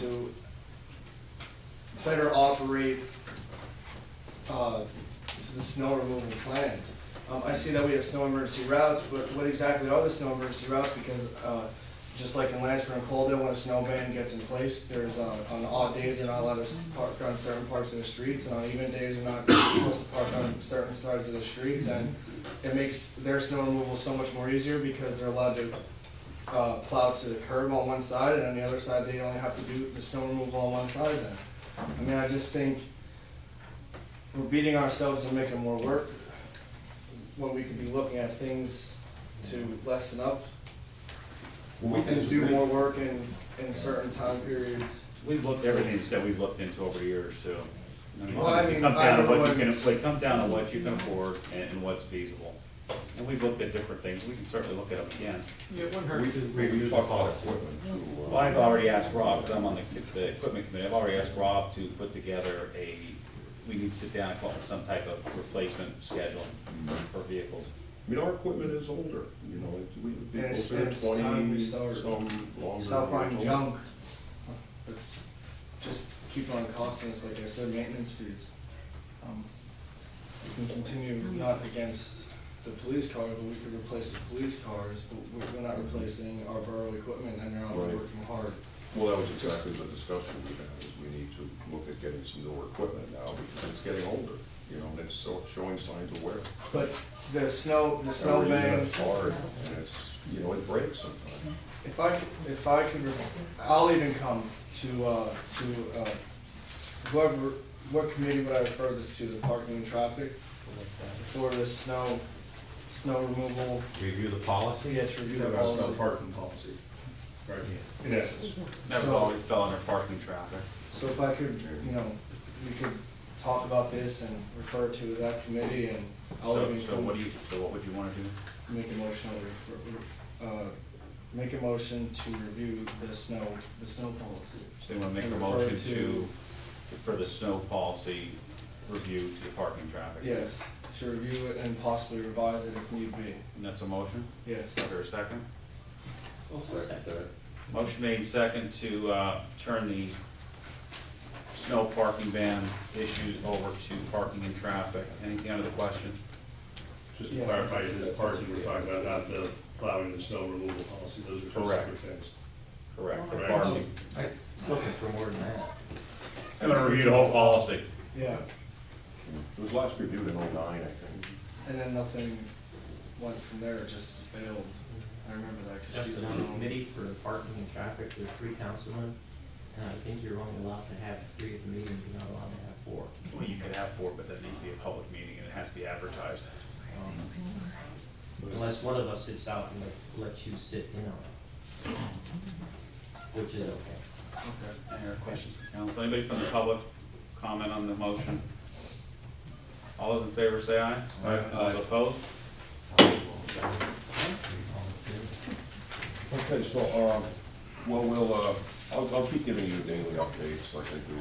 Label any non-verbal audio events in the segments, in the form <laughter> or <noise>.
to better operate, uh, the snow removal plan. Um, I see that we have snow emergency routes, but what exactly are the snow emergency routes? Because, uh, just like in Lansford and Coldale, when a snow ban gets in place, there's, uh, on odd days, they're not allowed to s- park on certain parts of the streets, and on even days, they're not <coughs> supposed to park on certain sides of the streets, and it makes their snow removal so much more easier because they're allowed to uh, plow to the curb on one side, and on the other side, they only have to do the snow removal on one side then. I mean, I just think we're beating ourselves and making more work when we could be looking at things to lessen up and do more work in, in certain time periods. We've looked, everything that we've looked into over the years too. It Well, I mean, comes down to I don't what know you can, what- it comes down to what you can afford and, and what's feasible. And we've looked at different things, we can certainly look at them again. Yeah, it wouldn't We hurt to we review the can talk about policy. equipment too. uh, Well, I've already asked Rob, because I'm on the, the equipment committee, I've already asked Rob to put together a, we need to sit down and come up with some type of replacement schedule for vehicles. I mean, our equipment is older, you know, it's, we, And it's- it's been it's time we twenty, start- some longer. Stop buying years old. junk. Let's just keep on costing us, like I said, maintenance fees. Um, We can continue not against the police car, but we could replace the police cars, but we're- we're not replacing our borough equipment and they're not Right. working hard. Well, that was exactly the discussion we had, is we need to look at getting some newer equipment now, because it's getting older, you know, and it's so, showing signs of wear. But the snow, the Our snow engine bangs, is hard, and it's, you know, it breaks sometimes. if I, could- if I could, re- I'll even come to, uh, to, uh, whoever, what committee would I refer this to, the parking and traffic? For the snow, snow removal Review the policy? Yes, review the policy. parking policy, right, in essence. That was always fell under parking traffic. So if I could, you know, we could talk about this and refer to that committee and Oh, I'll So, even. so what do you, so what would you wanna do? Make a motion, to refer- uh, make a motion to review the snow, the snow policy. So you wanna make a And motion refer to, for the snow policy review to the parking traffic? Yes, to review it and possibly revise it if need be, And that's a motion? yes. Is there a second? Motion made and second to uh, turn the snow parking ban issues over to parking and traffic. Anything under the question? Just to Yeah. clarify, this parking we're talking about, not the plowing and snow removal policy, those are two Correct. separate things. Correct. The Correct. parking. Oh, Looking for more than that. I'm gonna review the whole policy. Yeah, It was last reviewed in oh-nine, I think. and then nothing went from there, it just failed. I remember that. 'cause That's she's another on- committee for parking and traffic, there's three councilmen, and I think you're only allowed to have three at the meeting, you're not allowed to have four. Well, you could have four, but that needs to be a public meeting and it has to be advertised. Um, Unless one of us sits out and let, lets you sit in on it, which is okay. Okay. Any other questions from council? Anybody from the public comment on the motion? All those in favor say aye. Aye. All opposed? Okay, so, um, well, we'll, uh, I'll, I'll keep giving you daily updates like I do,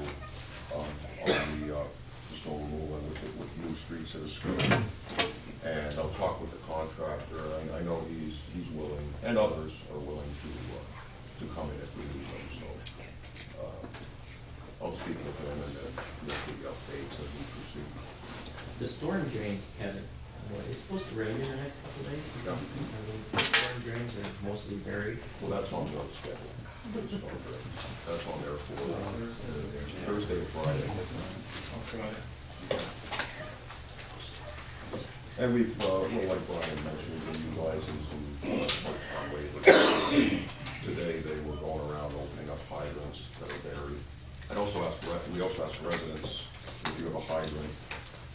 um, on the, uh, the snow removal and with, the- with new streets that are screwed. And I'll talk with the contractor, and I know he's, he's willing, and others are willing to, uh, to come in if we need them, so. uh, I'll speak with them and then make the updates as we proceed. The storm drains, Kevin, uh, it's supposed to rain in the next couple of days. Yeah. I mean, the Storm drains are mostly buried. Well, that's on the schedule. That's on there. That's on there for uh, Thursday or Friday. I'll try. And we've, uh, well, like Brian mentioned, we utilized some, uh, Conway, today they were going around opening up hydrants that are buried. And also asked, re- we also asked residents, if you have a hydrant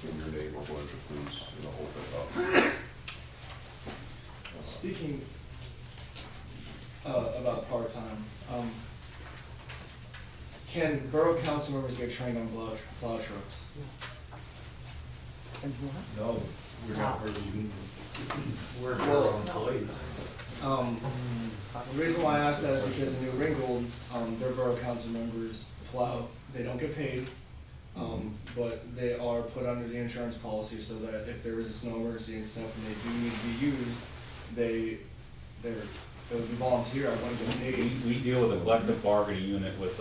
in your neighborhood, to please, you know, open it up. Speaking uh, about part-time, um, can borough council members get trained on plow plow trucks? No, we're not really We're our own employees. Um, The reason why I ask that is because in New Ringgold, um, their borough council members plow, they don't get paid, um, but they are put under the insurance policy so that if there is a snow emergency and stuff and they do need to be used, they, they're, they would be volunteer, I wouldn't get We, paid. we deal with a collective bargaining unit with